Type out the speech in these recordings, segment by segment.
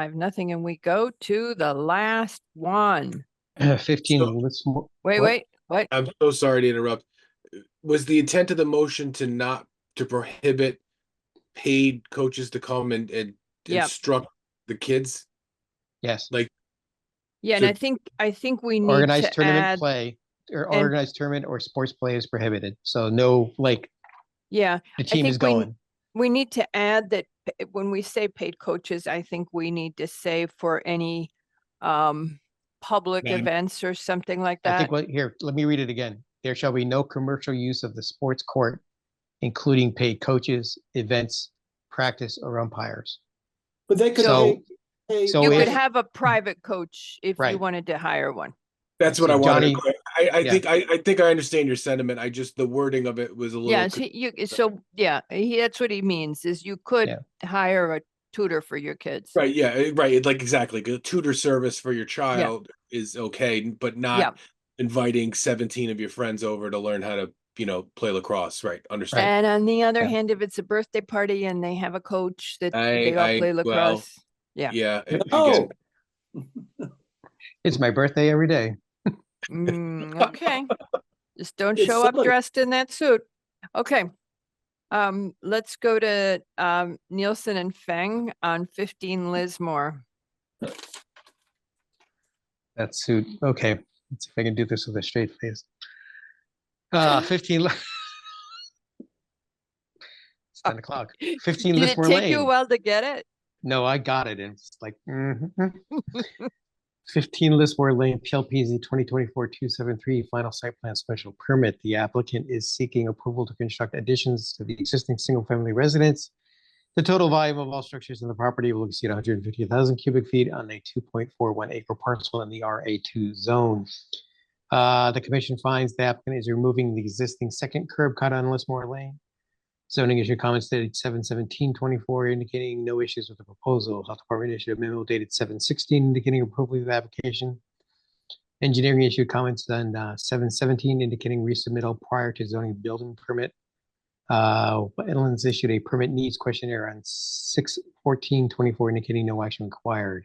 Five, nothing, and we go to the last one. Fifteen, So- let's, mo- Wait, What? wait, what? I'm so sorry to interrupt. Was the intent of the motion to not, to prohibit paid coaches to come and, and Yep. instruct the kids? yes, Yeah, and I should- think, I think we need organized to tournament add, play, or and- organized tournament or sports play is prohibited, so no, like, yeah, the team is think we- going. we need to add that p- when we say paid coaches, I think we need to say for any um public Madam- events or something like I that. think, what here, let me read it again. There shall be no commercial use of the sports court, including paid coaches, events, practice, or umpires. But they could. So- pay- pay- so You Oh, could yeah. have a private coach if you Right. wanted to hire one. That's what So I wanted. to Johnny- clar- I, I yeah. think, I, I think I understand your sentiment. I just, the wording of it was a little. Yes, con- he- you, so, yeah, he, that's what he means, is you could hire a tutor for your kids. Right, yeah, eh, right, it's like exactly, a tutor service for your child is okay, but Yeah. not inviting seventeen of your friends over to learn how to, you know, play lacrosse, right, understand? And on the other Yeah. hand, if it's a birthday party and they have a coach that I- they all I- play well, lacrosse. yeah. Yeah. eh, Oh, again, It's my birthday every day. Mm, okay. Just don't It's show up silly. dressed in that suit. Okay. Um, let's go to, um, Nielsen and Feng on fifteen Lismore. That suit. Okay. Let's see if I can do this with a straight face. Uh, 15. li- it's 10 o'clock. 15 Did it Lismore take you a Lane. while to get it? No, I got it. And it's like, mhm. 15 Lismore Lane, PLPZ 2024-273, final site plan special permit. The applicant is seeking approval to construct additions to the existing single-family residence. The total volume of all structures in the property will exceed 150,000 cubic feet on a 2.41 acre parcel in the RA2 zone. Uh, The commission finds the applicant is removing the existing second curb cut on Lismore Lane. Zoning issue comments dated 7-17-24, indicating no issues with the proposal. Health Department issued a memo dated 7-16, indicating approval of the application. Engineering issued comments on uh, seven seventeen indicating resubmittal prior to zoning building permit. Uh, Wetlands issued a permit needs questionnaire on 6-14-24, indicating no action required.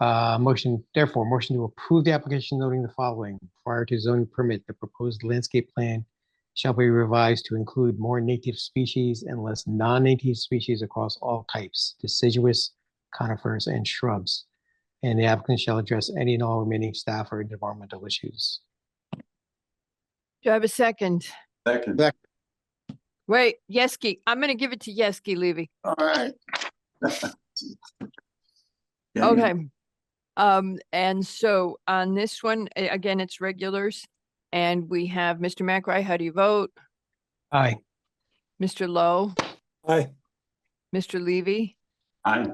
Uh, motion, therefore, motion to approve the application noting the following. Prior to zoning permit, the proposed landscape plan shall be revised to include more native species and less non-native species across all types, deciduous, conifers, and shrubs. And the applicant shall address any and all remaining staff or environmental issues. Do I have a second? Second. Wait, Yeski, I'm gonna give it to Yeski Levy. All right. Okay. Um, and so on this one, a- again, it's regulars. And we have Mr. McRae, how do you vote? Aye. Mr. Lowe, Aye. Mr. Levy, Aye.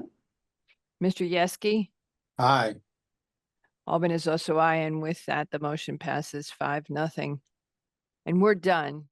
Mr. Yeski? Aye. Albin is also aye, and with that, the motion passes five, nothing. And we're done.